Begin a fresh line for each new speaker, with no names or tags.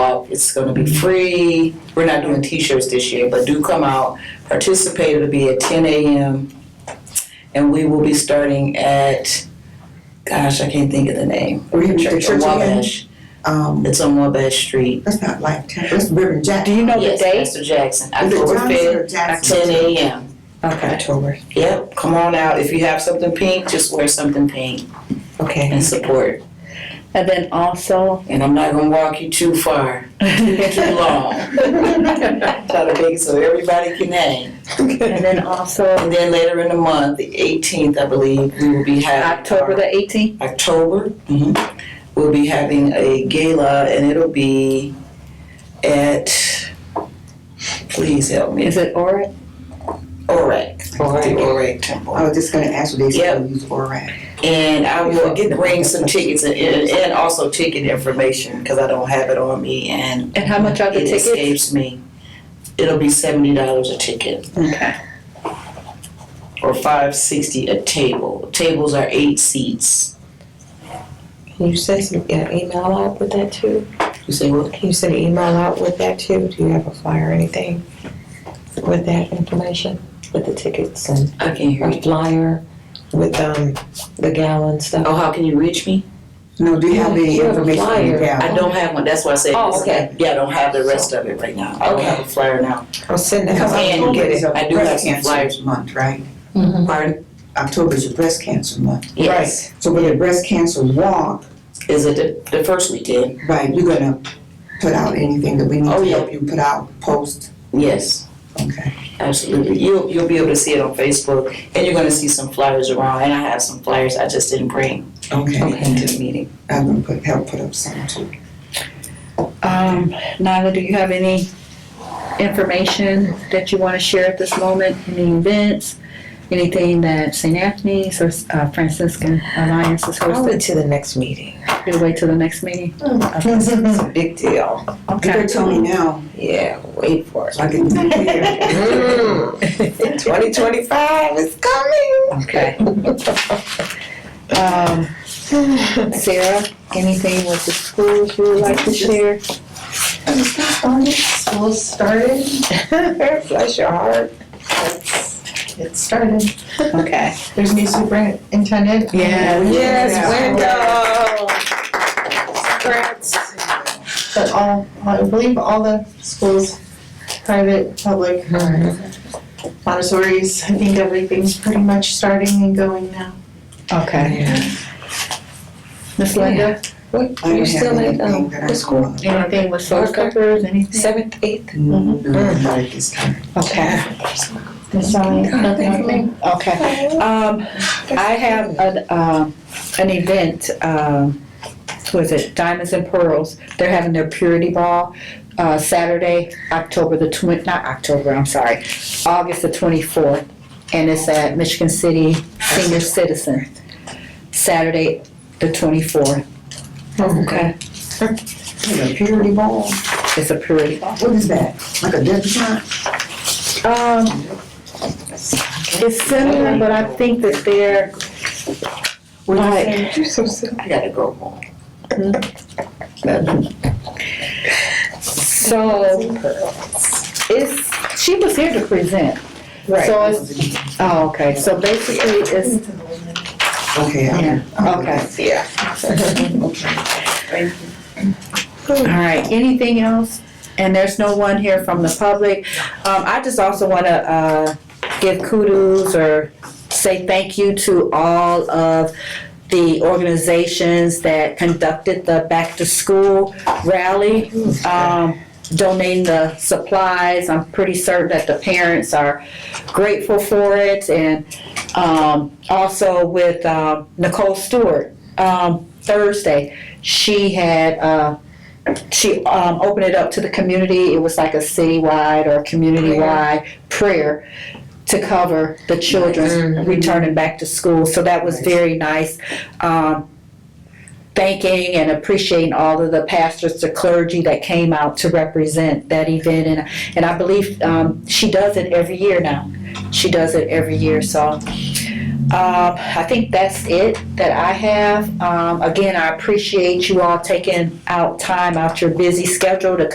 It's gonna be free. We're not doing t-shirts this year, but do come out. Participate, it'll be at ten AM. And we will be starting at, gosh, I can't think of the name.
Where you- the church
On
again?
Wabash.
Um,
It's on Wabash Street.
that's not like Tampa, that's Reverend Jack.
Do you know Oh, the
Yes,
date?
Pastor Jackson,
Is it
October
Johnson
fifth,
or Jackson?
ten AM.
Okay.
October,
Yep, come on out. If you have something pink, just wear something pink
okay.
and support.
And then also,
And I'm not gonna walk you too far, too
and
long. Try to make it so everybody can hang.
then also
And then later in the month, the 18th, I believe, we will be having.
October the 18th.
October, mhm, we'll be having a gala and it'll be at, please help me.
Is it Orit?
Orac, the Orac Temple.
I was just gonna ask you, they
Yep.
still use ORAD.
And I will
Forget the-
bring some tickets and, and and also ticket information, cause I don't have it on me and
And how much are the
it
tickets?
escapes me. It'll be seventy dollars a ticket
Okay.
or five sixty a table. Tables are eight seats.
Can you send some, get an email out with that too?
You say what?
Can you send an email out with that too? Do you have a flyer or anything with that information, with the tickets and
I can hear
or
you.
flyer with um the gala and stuff?
Oh, how can you reach me?
No, do you have any
You have a
information on
flyer.
the gala?
I don't have one, that's why I said.
Oh, okay.
Yeah, I don't have the rest of it right now. I don't
Okay.
have a flyer now.
I'll send that.
Because
I
out.
can
October
get it.
is a
I do have
breast
some flyers.
cancer month, right?
Mhm.
Pardon?
October is your breast cancer month.
Yes.
So with the breast cancer walk,
Is it the, the first weekend?
right, you're gonna put out anything that we need
Oh,
to
yeah.
help you put out, post,
Yes.
okay?
Absolutely. You'll, you'll be able to see it on Facebook and you're gonna see some flyers around. And I have some flyers I just didn't bring
Okay.
into the meeting.
I'm gonna put, help put up some too.
Um, Nyla, do you have any information that you want to share at this moment? Any events? Anything that St. Anthony's or uh, Franciscan Alliance is
I'll
hosting?
wait till the next meeting.
You'll wait till the next meeting?
Hmm.
It's a big deal.
You better tell me now,
Yeah, wait for it. mm.
so I can prepare.
Twenty twenty-five is coming.
Okay. Um, Sarah, anything with the schools you would like to share?
School started,
Bless your heart.
it's, it started.
Okay.
There's a new superintendent.
Yeah.
Yes,
But all, I believe all the schools, private, public,
window.
Mm-hmm.
Montessori's, I think everything's pretty much starting and going now.
Okay. Miss Linda,
What,
I don't
you
have
still at
anything
um,
that I
the school?
wanna-
anything with soul
Okay.
Clippers, anything?
Seventh, eighth?
Mm,
Mm-hmm.
do it right this time.
Okay,
Miss Sally, nothing happening?
okay. Um, I have an, um, an event, um, was it Diamonds and Pearls? They're having their purity ball, uh, Saturday, October the twen- not October, I'm sorry, August the twenty-fourth. And it's at Michigan City Senior Citizen, Saturday, the twenty-fourth.
Okay.
Like a Purity ball,
It's a purity ball.
what is that, like a debutante?
Um, it's similar, but I think that they're like,
I gotta go home.
so, it's, she was here to present. So it's, oh, okay, so basically it's,
Okay, I-
yeah, okay.
Yeah.
All right, anything else? And there's no one here from the public. Um, I just also wanna, uh, give kudos or say thank you to all of the organizations that conducted the back to school rally. Um, donating the supplies, I'm pretty certain that the parents are grateful for it. And, um, also with, um, Nicole Stewart, um, Thursday, she had, uh, she um, opened it up to the community. It was like a citywide or community-wide prayer to cover the children returning back to school. So that was very nice. Um, thanking and appreciating all of the pastors, the clergy that came out to represent that event, and and I believe um, she does it every year now. She does it every year. So. Um, I think that's it that I have. Um, again, I appreciate you all taking out time out your busy schedule to